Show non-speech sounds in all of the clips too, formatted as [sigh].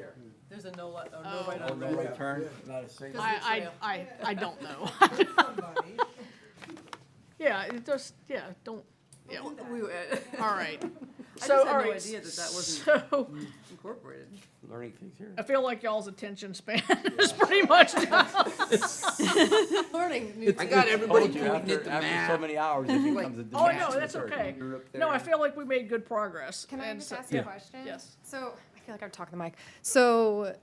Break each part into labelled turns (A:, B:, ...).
A: a no, li- or no right
B: Oh,
A: on
B: no
A: red.
C: return,
D: not a single.
A: trail.
B: I, I, I, I don't
A: [laughs]
B: know.
E: Somebody.
B: Yeah, it just, yeah, don't, yeah, all
A: We were-
B: right.
A: I just
B: So,
A: had
B: all
A: no
B: right,
A: idea that that wasn't
B: So,
A: incorporated.
C: learning things here.
B: I feel like y'all's attention span [laughs] is pretty much down.
A: [laughs] Learning new
C: I
A: things.
C: got everybody
D: told you
C: pointing
D: after-
C: at the
D: after so
C: map. so many hours, [laughs] it becomes a
B: Oh,
C: disaster.
B: no, that's okay. [laughs] No, I feel like we made good progress.
F: Can I
B: and
F: just
B: so-
F: ask a
C: Yeah.
F: question?
B: Yes.
F: So, I feel like I'm talking to the mic. So,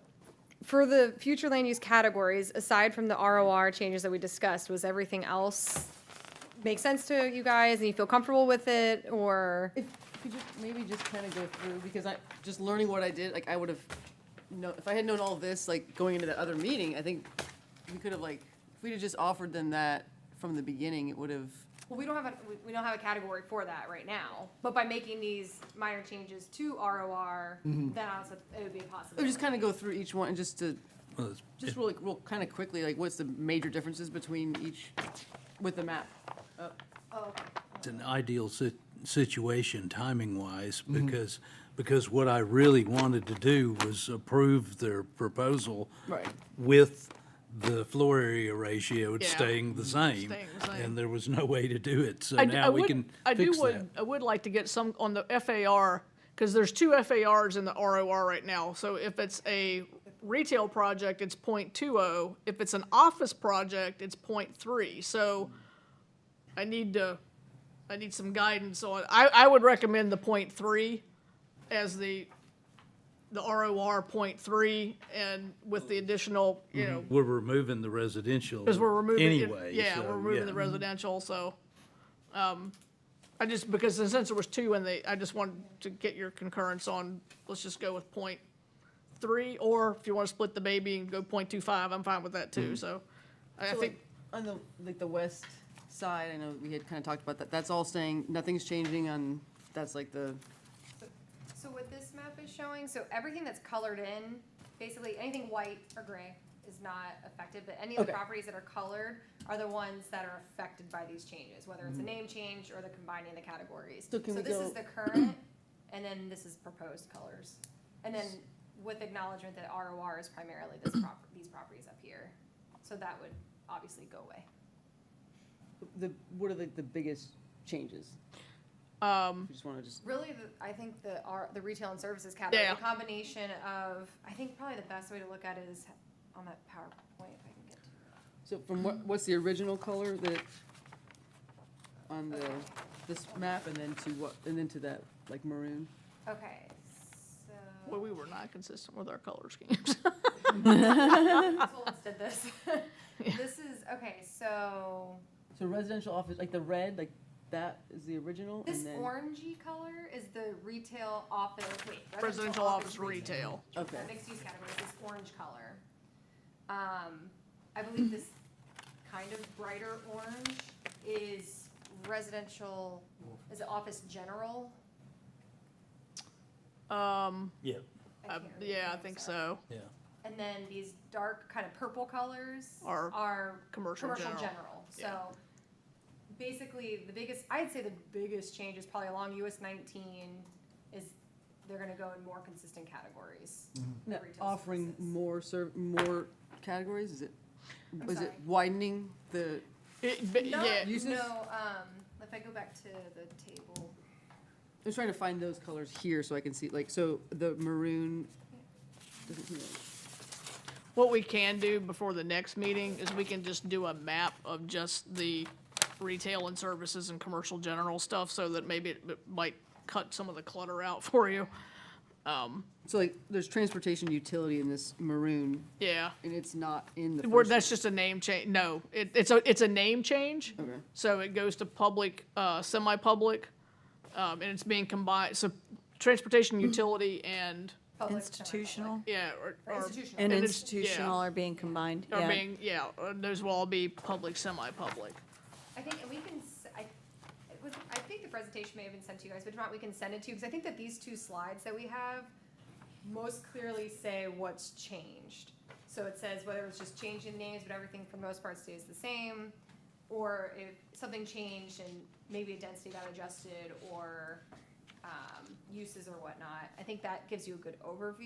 F: for the future land use categories, aside from the ROR changes that we discussed, was everything else make sense to you guys and you feel comfortable with it or?
A: If, could you maybe just kind of go through, because I, just learning what I did, like, I would have, no, if I had known all this, like, going into that other meeting, I think we could have, like, if we'd have just offered them that from the beginning, it would have,
F: Well, we don't have a, we- we don't have a category for that right now, but by making these minor changes to ROR, then also it would be
A: it
F: possible.
A: would just kind of go through each one and just to,
D: Well,
A: just really, real, kind of quickly, like, what's the major differences between each, with the map?
F: Oh, okay.
D: It's an ideal sit- situation, timing-wise,
B: Mm-hmm.
D: because, because what I really wanted to do was approve their proposal
A: Right.
D: with the floor area ratio
B: Yeah. Mm-hmm.
D: staying the same.
B: Staying the same.
D: And there was no way to do it, so
B: I d- I
D: now we
B: would-
D: can
B: I do
D: fix that.
B: would, I would like to get some on the FAR, because there's two FARs in the ROR right now. So if it's a retail project, it's .20. If it's an office project, it's .3. So I need to, I need some guidance on, I, I would recommend the .3 as the, the ROR .3, and with the additional, you know,
D: We're removing the residential
B: because we're removing. it-
D: anyway.
B: Yeah,
D: so,
B: we're removing the
D: yeah.
B: residential, so, um, I just, because since there was two and they, I just wanted to get your concurrence on, let's just go with point three, or if you want to split the baby and go point two five, I'm fine with that
D: Mm-hmm.
B: too, so. I I
A: So,
B: think,
A: like, on the, like, the west side, I know we had kind of talked about that, that's all staying, nothing's changing on, that's like the,
F: So what this map is showing, so everything that's colored in, basically anything white or gray is not affected, but any of the
A: Okay.
F: properties that are colored are the ones that are affected by these changes, whether it's a name change or the combining of the categories.
A: Mm-hmm. So can we
F: this is
A: go-
F: the current, and then this is proposed colors. And then with acknowledgement that ROR is primarily this prop, these properties up here. So that would obviously go away.
A: the, what are the, the biggest changes?
B: um,
A: We just want to just.
F: Really, the- I think the, our, the retail and services category,
B: Yeah.
F: the combination of, I think probably the best way to look at it is on that PowerPoint, if I can get to.
A: So from
F: Um,
A: what, what's the original color that, on the, this map, and then to what, and then to that, like maroon?
F: Okay,
B: well,
F: so,
B: we were not consistent with our color
F: [laughs]
B: schemes.
F: Tolles
B: [laughs]
F: did this. This is, okay, so,
A: So residential office, like the red, like that is the original,
F: this
A: and then.
F: orangey color is the retail office, wait.
B: Residential office retail.
A: Okay,
F: Mixed-use category, this orange color. Um, I believe this kind of brighter orange is residential, is it office general?
B: Um,
D: Yeah,
F: I
B: uh,
F: can't read
B: yeah, I
F: names,
B: think
F: sorry.
B: so,
D: yeah.
F: And then these dark kind of purple colors
B: Are
F: are
B: commercial
F: commercial
B: general.
F: general. So
B: Yeah.
F: basically, the biggest, I'd say the biggest change is probably along US nineteen is they're gonna go in more consistent categories.
A: Now,
F: Retail
A: offering
F: services.
A: more serv, more categories, is it,
F: I'm
A: was it
F: sorry.
A: widening the,
B: It, but,
F: Not-
B: yeah,
A: Uses?
F: No, um, if I go back to the table,
A: I'm trying to find those colors here so I can see, like, so the maroon. doesn't come out.
B: What we can do before the next meeting is we can just do a map of just the retail and services and commercial general stuff so that maybe it m- might cut some of the clutter out [laughs] for you.
A: So like, there's transportation utility in this maroon,
B: Yeah.
A: and it's not in the
B: Where,
A: first-
B: that's just a name change. No, it, it's a, it's a name change.
A: Okay.
B: So it goes to public, uh, semi-public, um, and it's being combined, so transportation
G: Mm-hmm.
B: utility and,
F: public.
G: Institutional
B: yeah, or.
F: semi-public,
B: or-
F: or Institutional.
G: and
B: And it's-
G: institutional
B: yeah.
G: are being combined,
B: Are
G: yeah.
B: being, yeah, uh, those will all be public, semi-public.
F: I think, and we can, s- I, it was, I think the presentation may have been sent to you guys, but if not, we can send it to you, because I think that these two slides that we have most clearly say what's changed. So it says whether it's just changing names, but everything for the most part stays the same, or if something changed and maybe a density got adjusted, or, um, uses or whatnot. I think that gives you a good overview.